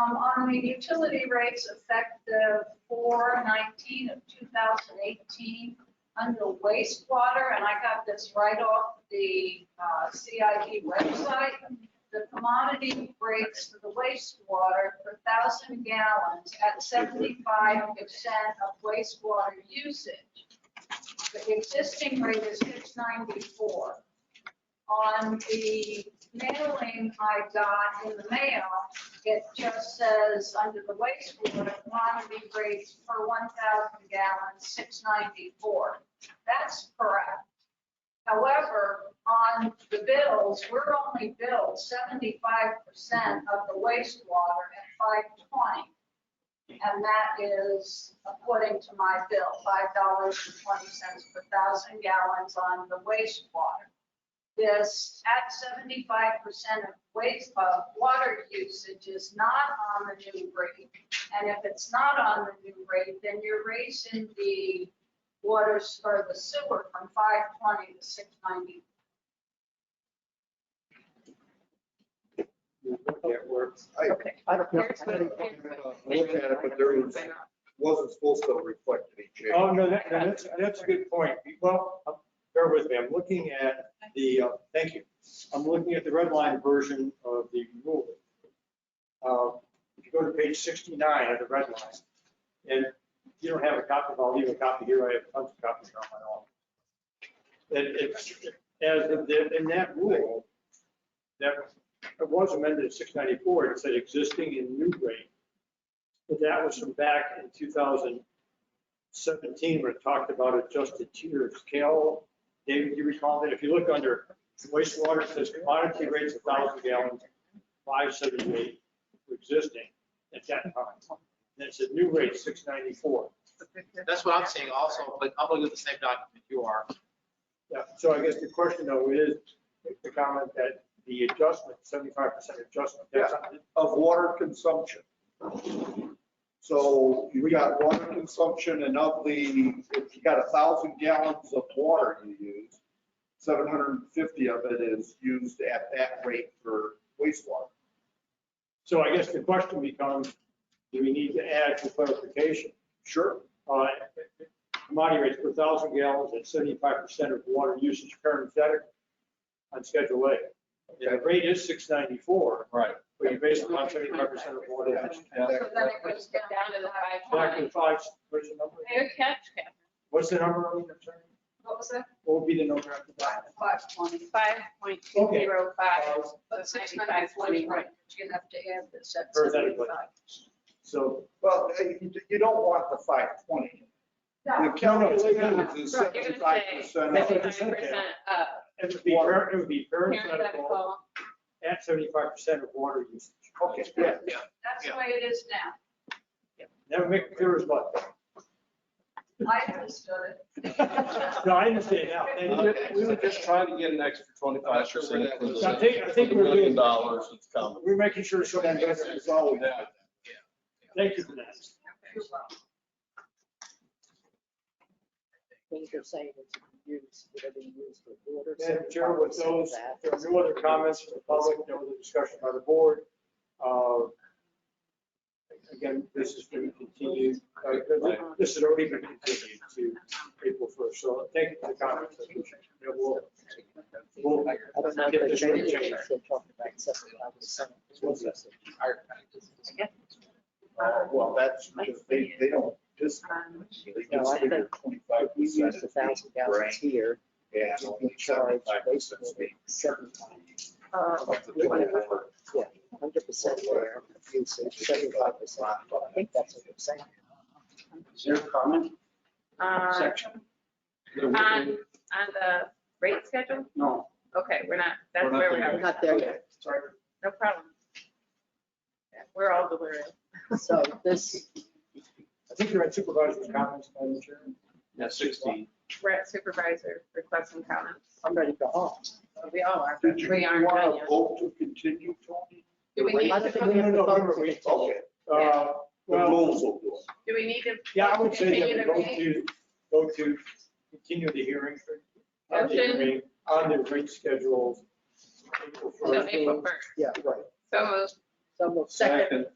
um, on the utility rates effective four nineteen of two thousand eighteen under wastewater, and I got this right off the, uh, CIP website. The commodity rates for the wastewater per thousand gallons at seventy-five percent of wastewater usage. The existing rate is six ninety-four. On the mailing I got in the mail, it just says under the wastewater quantity rates per 1,000 gallons, 694. That's correct. However, on the bills, we're only billed 75% of the wastewater at 520. And that is according to my bill, $5.20 per thousand gallons on the wastewater this at seventy-five percent of waste, of water usage is not on the new rate. And if it's not on the new rate, then you're raising the waters or the sewer from five twenty to six ninety. It works. I Okay, I don't know. Here's I don't- looked at it, but there was, wasn't supposed to reflect any change. Oh, no, that, no, that's, that's a good point. Well, bear with me, I'm looking at the, uh, thank you. I'm looking at the red line version of the rule. Uh, If you go to page 69 of the red line, and if you don't have a copy, I'll leave a copy here, I have tons of copies on my own. It, it's, as of the- in that rule, that it was amended in 694, it said existing and new rate. But that was from back in 2000, 17, when it talked about adjusted tiers. Cal, David, do you recall that? If you look under wastewater, it says commodity rates a 1,000 gallons, 578 for existing at that time. And it said new rate 694. That's what I'm saying also, but I'm looking at the same document you are. Yeah, so I guess the question though is, the comment that the adjustment, 75% adjustment, that's not- Of water consumption. So you got water consumption and of the, if you got a thousand gallons of water you use, seven hundred and fifty of it is used at that rate for wastewater. So I guess the question becomes, do we need to add for clarification? Sure. uh, commodity rates per thousand gallons at seventy-five percent of water usage parenthetic on Schedule A. And the rate is six ninety-four, Right. but you base it on seventy-five percent of water usage. So then it goes down to the five Back twenty. to five, what's the number? Good catch, Catherine. What's the number? I'm sorry? What was that? What would be the number after that? Five twenty. Five point two zero Uh, five. But six ninety-four, right, you're gonna have to add this at Parenthetically. seventy-five. So, Well, uh, you you don't want the five twenty. No, The calculation is Right, you're seventy-five gonna percent That's of. what Seventy-five they said, percent uh, up. it would be, par- it would be parenthetical Parenthetical. at seventy-five percent of water usage. Okay, Yeah, that's the way it is now. that would make it clear as mud. I understood it. No, I understand now. Thank you. We were just trying to get an extra twenty-five percent. I think, I think we're Million doing, dollars is coming. we're making sure it's So going that to is always. Thank you for that. You're welcome. Things are saying it's used, whatever you use for water. Madam Chair, with 75% of those, that. there are no other comments from the public, no other discussion by the board. Uh, Again, this has been continued, uh, this has already been continued to April 1st, so thank you for the comments. I appreciate it. Yeah, We'll, we'll I don't know if get they this changed really it, changed. it's still talking about seventy-five percent. Uh, Well, that's, just- they, they don't just, they No, just I figure think twenty-five We percent. use a thousand gallons here, Yeah. we charge basically seventy-five. uh, Yeah, hundred percent there, usage, seventy-five percent. I think that's what you're saying. Your comment? On, Section? uh, on on the rate schedule? No. Okay, we're not, that's We're not where we there are. We're not there yet. Sorry. No problem. Yeah, We're all delirious. So this, I think you're at supervisor's comments, Madam Chair. Yeah, sixteen. We're at supervisor requesting comments. I'm ready to go home. We all are. Did you We aren't done want to yet. vote to continue, Tony? Do we need I don't to, think we have No, to no, no, vote. we- to continue. Okay, Uh, the Well, rules will do it. do we need to? yeah, I would say that continue we the go meeting? to, go to continue the hearing. on the Motion. hearing On the rate schedule. April Till 1st. April first. Yeah, right. So moved. So we'll second, Second.